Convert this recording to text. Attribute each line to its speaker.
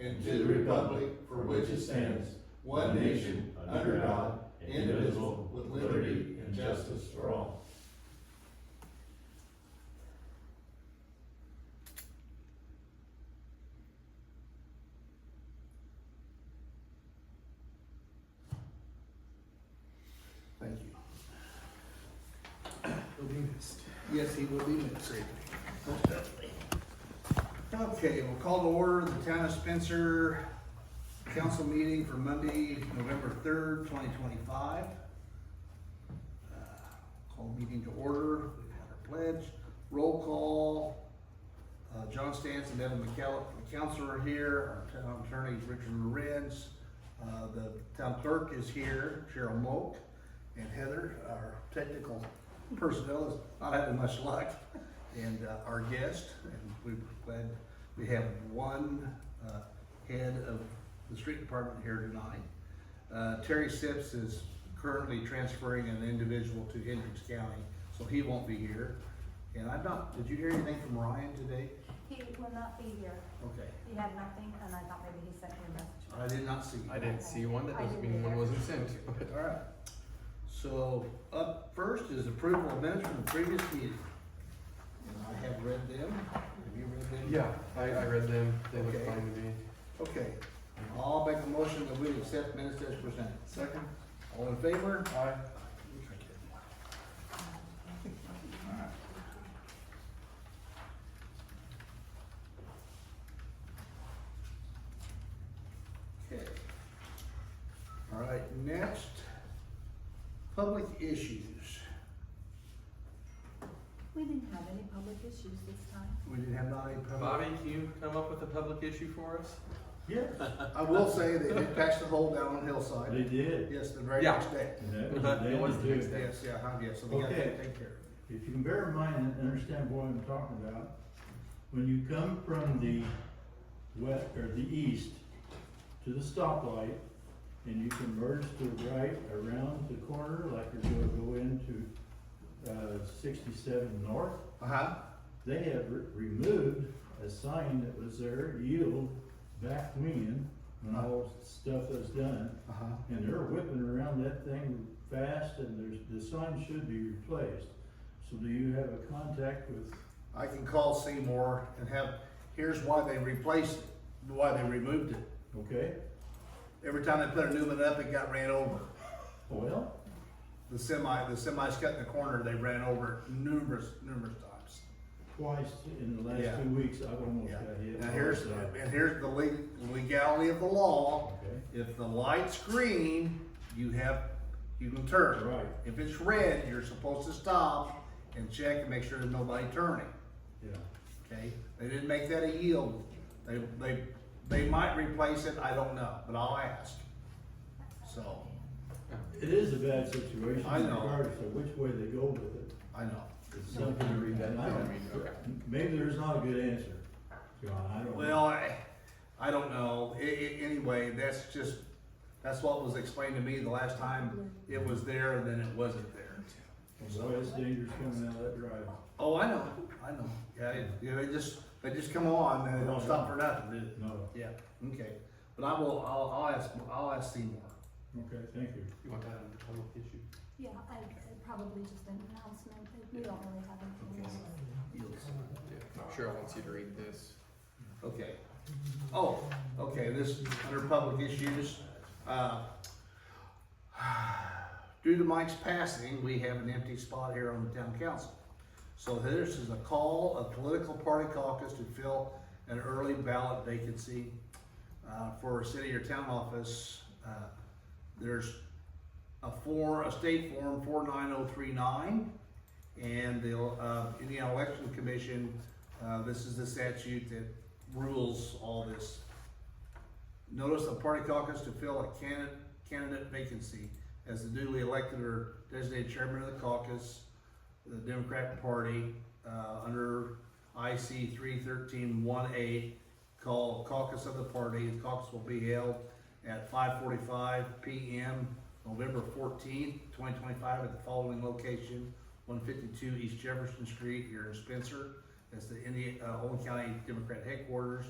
Speaker 1: and to the republic for which it stands, one nation, under God, indivisible, with liberty and justice for all. Thank you.
Speaker 2: He'll be missed.
Speaker 1: Yes, he will be missed. Okay, we'll call to order the Town of Spencer Council meeting for Monday, November third, twenty twenty-five. Uh, Call meeting to order, we have had our pledge, roll call. Uh, John Stantz and Devin McCallum, the council are here, our town attorney is Richard Lorenz. Uh, the town clerk is here, Cheryl Moak, and Heather, our technical personnel is not having much luck. And uh, our guest, and we're glad we have one uh, head of the street department here tonight. Uh, Terry Sips is currently transferring an individual to Hendricks County, so he won't be here. And I'm not, did you hear anything from Ryan today?
Speaker 3: He will not be here.
Speaker 1: Okay,
Speaker 3: He had nothing, and I thought maybe he sent me a message.
Speaker 1: I did not see.
Speaker 2: I didn't see one that doesn't mean one wasn't sent, but
Speaker 1: All right. So up first is approval of minutes from the previous meeting. And I have read them. Have you read them?
Speaker 2: yeah, I, I read them. They look
Speaker 1: Okay.
Speaker 2: fine to me.
Speaker 1: Okay. I'll make a motion that we accept minutes as presented.
Speaker 2: Second.
Speaker 1: All in favor?
Speaker 2: Aye.
Speaker 1: Okay. All right, next, public issues.
Speaker 3: We didn't have any public issues this time.
Speaker 1: We didn't have not any public.
Speaker 4: Bobby, can you come up with a public issue for us?
Speaker 5: Yes,
Speaker 1: I will say they did patch the hole down on
Speaker 5: they
Speaker 1: Hillside.
Speaker 5: did.
Speaker 1: Yes, the very
Speaker 4: Yeah.
Speaker 1: next day.
Speaker 5: And that was-
Speaker 4: But
Speaker 5: they
Speaker 4: it was
Speaker 5: did
Speaker 4: the
Speaker 5: do
Speaker 4: next
Speaker 5: it.
Speaker 4: day.
Speaker 1: Yes, yeah, huh, yeah, so they gotta
Speaker 5: Okay.
Speaker 1: take care of it.
Speaker 5: If you can bear in mind and understand what I'm talking about, when you come from the west, or the east to the stoplight, and you can merge to the right around the corner, like you're gonna go into, uh, sixty-seven north,
Speaker 1: Uh-huh,
Speaker 5: they have re- removed a sign that was there, yield, back when, when all stuff was done.
Speaker 1: uh-huh.
Speaker 5: And they're whipping around that thing fast and there's, the sign should be replaced. So do you have a contact with,
Speaker 1: I can call Seymour and have, here's why they replaced, it, why they removed it.
Speaker 5: okay,
Speaker 1: Every time they put a new one up, it got ran over.
Speaker 5: well,
Speaker 1: The semi, the semi's cut in the corner, they ran over it numerous, numerous times.
Speaker 5: twice in the
Speaker 1: Yeah.
Speaker 5: last two weeks, I've almost
Speaker 1: Yeah,
Speaker 5: got hit.
Speaker 1: now here's,
Speaker 5: also.
Speaker 1: and here's the le- legality of the law.
Speaker 5: Okay.
Speaker 1: If the light's green, you have, you can turn.
Speaker 5: Right.
Speaker 1: If it's red, you're supposed to stop and check and make sure there's nobody turning.
Speaker 5: Yeah,
Speaker 1: Okay, they didn't make that a yield. They, they, they might replace it, I don't know, but I'll ask. So,
Speaker 5: it is a bad situation
Speaker 1: I know.
Speaker 5: regardless of which way they go with it.
Speaker 1: I know.
Speaker 5: It's something to read that. I don't-
Speaker 4: Okay.
Speaker 5: Maybe there's not a good answer, John, I don't. know.
Speaker 1: Well, I, I don't know. I, I, anyway, that's just, that's what was explained to me the last time. It was there and then it wasn't there.
Speaker 5: Boy, it's dangerous coming out of that drive.
Speaker 1: Oh, I know, I know. Yeah, it- yeah, they just, they just come on and they don't stop for nothing, do
Speaker 5: No,
Speaker 1: they? Yeah, okay. But I will, I'll, I'll ask, I'll ask Seymour.
Speaker 5: okay, thank you.
Speaker 4: You want that under public issue?
Speaker 3: Yeah, I, I probably just an announcement, but we don't really have anything. else.
Speaker 1: Yields.
Speaker 4: Yeah, Cheryl wants you to read this.
Speaker 1: Okay. Oh, okay, this, under public issues, uh, due to Mike's passing, we have an empty spot here on the town council. So this is a call of political party caucus to fill an early ballot vacancy, uh, for a city or town office. Uh, There's a form, a state form four nine oh three nine, and the, uh, Indiana Election Commission, uh, this is the statute that rules all this. Notice of party caucus to fill a candidate, candidate vacancy as the duly elected or designated chairman of the caucus, the Democrat Party, uh, under IC three thirteen one A, called caucus of the party. The caucus will be held at five forty-five PM, November fourteenth, twenty twenty-five, at the following location, one fifty-two East Jefferson Street here in Spencer. That's the Indian, uh, Owen County Democrat headquarters.